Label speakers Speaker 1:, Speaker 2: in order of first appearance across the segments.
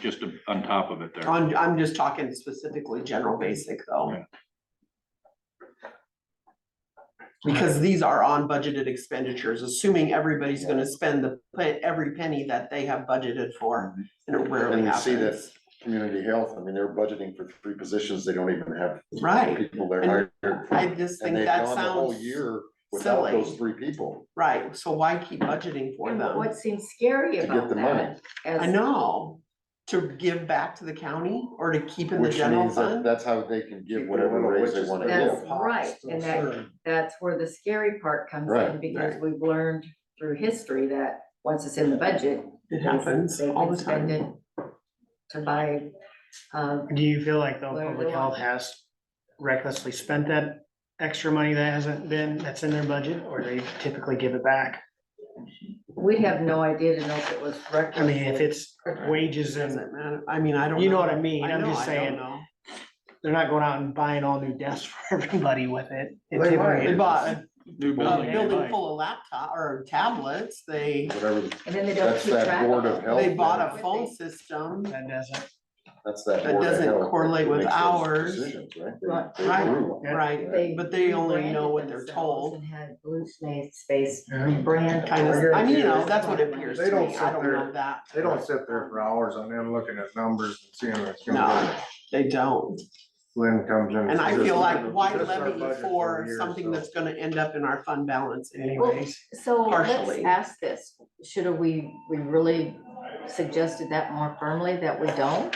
Speaker 1: just on top of it there.
Speaker 2: I'm, I'm just talking specifically general basic though.
Speaker 1: Yeah.
Speaker 2: Because these are on budgeted expenditures, assuming everybody's gonna spend the, pe- every penny that they have budgeted for, and it rarely
Speaker 3: And we see that-
Speaker 2: happens.
Speaker 3: Community health, I mean, they're budgeting for three positions, they don't even have
Speaker 2: Right,
Speaker 3: people they're
Speaker 2: And
Speaker 3: hired.
Speaker 2: I
Speaker 3: for,
Speaker 2: just
Speaker 3: And
Speaker 2: think
Speaker 3: they've
Speaker 2: that
Speaker 3: gone the whole
Speaker 2: sounds,
Speaker 3: year without
Speaker 2: silly.
Speaker 3: those three people.
Speaker 2: right, so why keep budgeting for
Speaker 4: And
Speaker 2: them?
Speaker 4: what seems scary
Speaker 3: To get
Speaker 4: about
Speaker 3: the money.
Speaker 4: that? as-
Speaker 2: I know, to give back to the county or to keep in the
Speaker 3: Which
Speaker 2: general
Speaker 3: means that
Speaker 2: fund?
Speaker 3: that's how they can give
Speaker 5: Keep
Speaker 3: whatever
Speaker 5: little
Speaker 3: raise they
Speaker 5: witches
Speaker 3: wanna
Speaker 5: in their
Speaker 4: That's
Speaker 3: give.
Speaker 5: pots
Speaker 4: right,
Speaker 5: to
Speaker 4: and that-
Speaker 5: serve.
Speaker 4: That's where the scary part comes in,
Speaker 3: Right.
Speaker 4: because we've learned through history that once it's in the budget.
Speaker 2: It happens
Speaker 4: they
Speaker 2: all
Speaker 4: can
Speaker 2: the
Speaker 4: spend
Speaker 2: time.
Speaker 4: it To buy, um,
Speaker 5: Do you feel like though
Speaker 4: Whatever
Speaker 5: public
Speaker 4: they
Speaker 5: health
Speaker 4: want.
Speaker 5: has recklessly spent that extra money that hasn't been, that's in their budget, or they typically give it back?
Speaker 4: we have no idea to know if it was
Speaker 5: I mean, if
Speaker 4: reckless.
Speaker 5: it's wages and
Speaker 2: Doesn't matter, I mean, I don't.
Speaker 5: You know what I mean,
Speaker 2: I
Speaker 5: I'm
Speaker 2: know,
Speaker 5: just
Speaker 2: I don't
Speaker 5: saying.
Speaker 2: know.
Speaker 5: they're not going out and buying all new desks for everybody with it. It
Speaker 3: They might.
Speaker 5: typically-
Speaker 2: They bought a
Speaker 1: New
Speaker 2: a
Speaker 5: Yeah,
Speaker 1: building.
Speaker 2: building
Speaker 5: right.
Speaker 2: full of laptop or tablets, they,
Speaker 3: Whatever, the-
Speaker 4: And then they don't
Speaker 3: that's
Speaker 4: keep track.
Speaker 3: that board of health.
Speaker 2: they bought a
Speaker 4: Health.
Speaker 2: phone system.
Speaker 5: That doesn't,
Speaker 3: That's that.
Speaker 2: that
Speaker 3: board of
Speaker 2: doesn't
Speaker 3: health that
Speaker 2: correlate with
Speaker 3: makes those
Speaker 2: ours.
Speaker 3: decisions, right? They-
Speaker 4: Right.
Speaker 3: they
Speaker 2: Right.
Speaker 3: approve.
Speaker 5: Yeah.
Speaker 2: Right,
Speaker 4: They
Speaker 2: but they only know
Speaker 4: rebranded
Speaker 2: what they're
Speaker 4: themselves
Speaker 2: told.
Speaker 4: And had blue space, space
Speaker 5: Yeah.
Speaker 4: brand.
Speaker 2: Kind of, I mean, you know, that's what it appears
Speaker 6: They
Speaker 2: to
Speaker 6: don't
Speaker 2: me, I
Speaker 6: sit
Speaker 2: don't
Speaker 6: there-
Speaker 2: know that.
Speaker 6: They don't sit there for hours on end looking at numbers and seeing what's going
Speaker 2: No,
Speaker 6: on.
Speaker 2: they don't,
Speaker 6: Lynn comes in.
Speaker 2: and I
Speaker 6: says,
Speaker 2: feel like
Speaker 6: "This is
Speaker 2: why
Speaker 6: our
Speaker 2: levy
Speaker 6: budget a
Speaker 2: for
Speaker 6: year,
Speaker 2: something
Speaker 6: so
Speaker 2: that's gonna end up in our fund balance anyways?
Speaker 4: So let's
Speaker 2: Partially.
Speaker 4: ask this, should we, we really suggested that more firmly that we don't?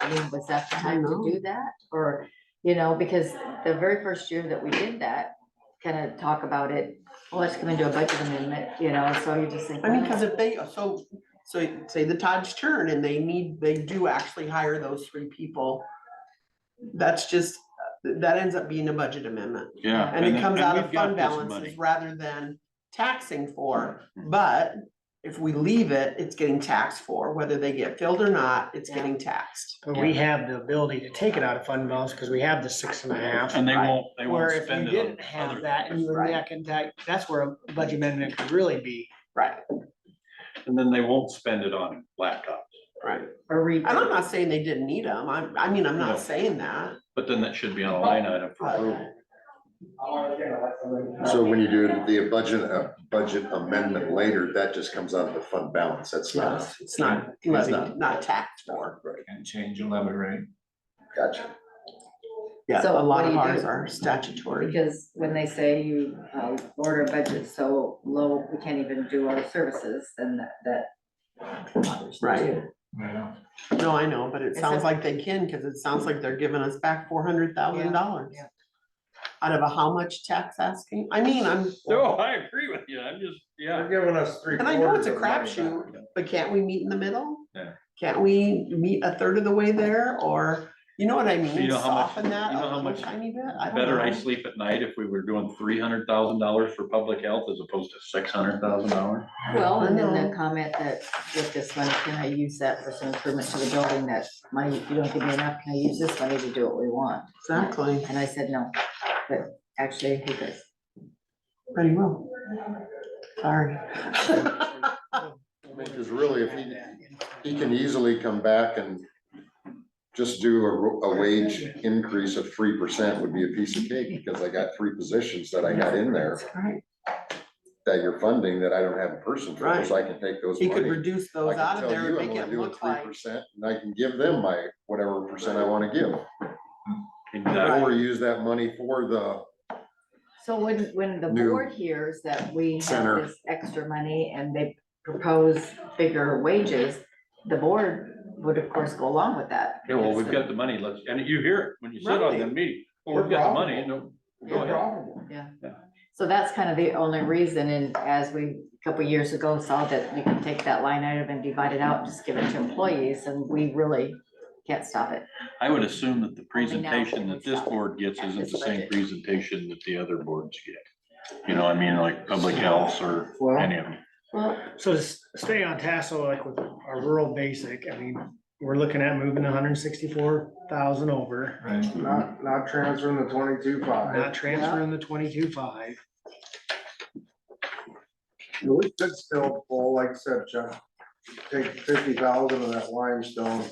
Speaker 4: I mean, was that the
Speaker 2: I
Speaker 4: time
Speaker 2: know.
Speaker 4: to do that? Or, you know, because the very first year that we did that, kind of talk about it, well, let's come into a budget amendment, you know, so you just think.
Speaker 2: I mean, cause
Speaker 4: well,
Speaker 2: if they, so, so say the tides turn and they need, they do actually hire those three people. That's just, that ends up being a budget amendment
Speaker 1: Yeah.
Speaker 2: and it comes
Speaker 1: and
Speaker 2: out of
Speaker 1: we've got
Speaker 2: fund
Speaker 1: this
Speaker 2: balances
Speaker 1: money.
Speaker 2: rather than taxing for.
Speaker 4: Mm-hmm.
Speaker 2: But if we leave it, it's getting taxed for, whether they get filled or not, it's
Speaker 4: Yeah.
Speaker 2: getting taxed.
Speaker 5: but we have the ability to take it out of fund balance because we have the six and a half.
Speaker 1: And they
Speaker 2: Right.
Speaker 1: won't, they won't
Speaker 5: Where if you
Speaker 1: spend it
Speaker 5: didn't
Speaker 1: on
Speaker 5: have
Speaker 1: other
Speaker 5: that and
Speaker 1: things.
Speaker 5: you were
Speaker 2: Right.
Speaker 5: back in tax, that's where a budget amendment could really be.
Speaker 2: Right,
Speaker 1: And then they won't spend it on laptops.
Speaker 2: right.
Speaker 4: Or re.
Speaker 2: And I'm not saying they didn't need them. I, I mean, I'm
Speaker 1: No.
Speaker 2: not saying that.
Speaker 1: But then that should be on a line item for approval.
Speaker 3: So when you do the budget, uh, budget amendment later, that just comes out of the fund balance, that's not.
Speaker 2: Yes, It's not,
Speaker 3: It's not.
Speaker 2: levied, not taxed for.
Speaker 6: And change the levy rate.
Speaker 3: Gotcha.
Speaker 2: Yeah,
Speaker 4: So
Speaker 2: a
Speaker 4: what
Speaker 2: lot
Speaker 4: do
Speaker 2: of
Speaker 4: you
Speaker 2: ours
Speaker 4: do?
Speaker 2: are statutory.
Speaker 4: Because when they say you, uh, order a budget so low, we can't even do our services, then that, that. bothers me
Speaker 2: Right.
Speaker 4: too.
Speaker 6: Yeah.
Speaker 2: No, I know, but it
Speaker 4: It's
Speaker 2: sounds
Speaker 4: a-
Speaker 2: like they can, cause it sounds like they're giving us back four hundred thousand dollars.
Speaker 4: Yeah,
Speaker 2: Out of a how much tax asking? I mean, I'm,
Speaker 1: No, I agree with you. I'm just, yeah.
Speaker 6: They're giving us three.
Speaker 2: And I know it's a
Speaker 6: quarters of money
Speaker 2: crapshoot, but can't we meet in the middle?
Speaker 1: Yeah.
Speaker 2: Can't we meet a third of the way there, or, you know what I mean,
Speaker 1: know how much-
Speaker 2: soften that
Speaker 1: you know how
Speaker 2: up a
Speaker 1: much
Speaker 2: tiny bit, I don't
Speaker 1: Better I
Speaker 2: know.
Speaker 1: sleep at night if we were doing three hundred thousand dollars for public health as opposed to six hundred thousand dollars.
Speaker 4: well, and then
Speaker 2: I
Speaker 4: the
Speaker 2: know.
Speaker 4: comment that with this money, can I use that for some improvements to the building that money, if you don't give me enough, can I use this money to do what we want?
Speaker 2: Exactly,
Speaker 4: And I said, no, but actually, he does.
Speaker 2: pretty well. Sorry.
Speaker 3: Because really, if he, he can easily come back and just do a, ro- a wage increase of three percent would be a piece of cake, because I got three positions that I got in there
Speaker 2: Right,
Speaker 3: that you're funding that I don't have a person for, so I can take those
Speaker 2: he could
Speaker 3: money.
Speaker 2: reduce
Speaker 3: I
Speaker 2: those
Speaker 3: can
Speaker 2: out of
Speaker 3: tell
Speaker 2: there,
Speaker 3: you
Speaker 2: and
Speaker 3: I'm
Speaker 2: make
Speaker 3: only
Speaker 2: it
Speaker 3: doing
Speaker 2: look
Speaker 3: three
Speaker 2: like,
Speaker 3: percent, and I can give them my whatever percent I wanna give,
Speaker 1: Exactly.
Speaker 3: or use that money for the,
Speaker 4: So when, when the
Speaker 3: New
Speaker 4: board hears that we have
Speaker 3: center.
Speaker 4: this extra money and they propose bigger wages, the board would of course go along with that.
Speaker 1: Yeah, well,
Speaker 4: because
Speaker 1: we've
Speaker 4: the-
Speaker 1: got the money, let's, and you hear it when you sit on the meeting, well, we've
Speaker 6: We're
Speaker 1: got the money,
Speaker 6: profitable.
Speaker 1: no, go
Speaker 6: We're
Speaker 1: ahead.
Speaker 6: profitable.
Speaker 4: Yeah,
Speaker 1: Yeah.
Speaker 4: so that's kind of the only reason, and as we, a couple years ago, saw that we can take that line item and divide it out, and just give it to employees, and we really can't stop it.
Speaker 1: I would assume that the
Speaker 4: Only now
Speaker 1: presentation
Speaker 4: can
Speaker 1: that
Speaker 4: we
Speaker 1: this
Speaker 4: stop
Speaker 1: board gets
Speaker 4: at
Speaker 1: isn't
Speaker 4: this
Speaker 1: the same
Speaker 4: budget.
Speaker 1: presentation that the other boards get. You know, I mean, like public health or
Speaker 6: Well,
Speaker 1: any of them.
Speaker 4: Well,
Speaker 5: So to s- stay on task, so like with our rural basic, I mean, we're looking at moving hundred and sixty-four thousand over.
Speaker 6: not, not transferring the twenty-two
Speaker 5: Not
Speaker 6: five.
Speaker 5: transferring the twenty-two five.
Speaker 6: We could still, well, like I said, Chuck, take fifty thousand of that limestone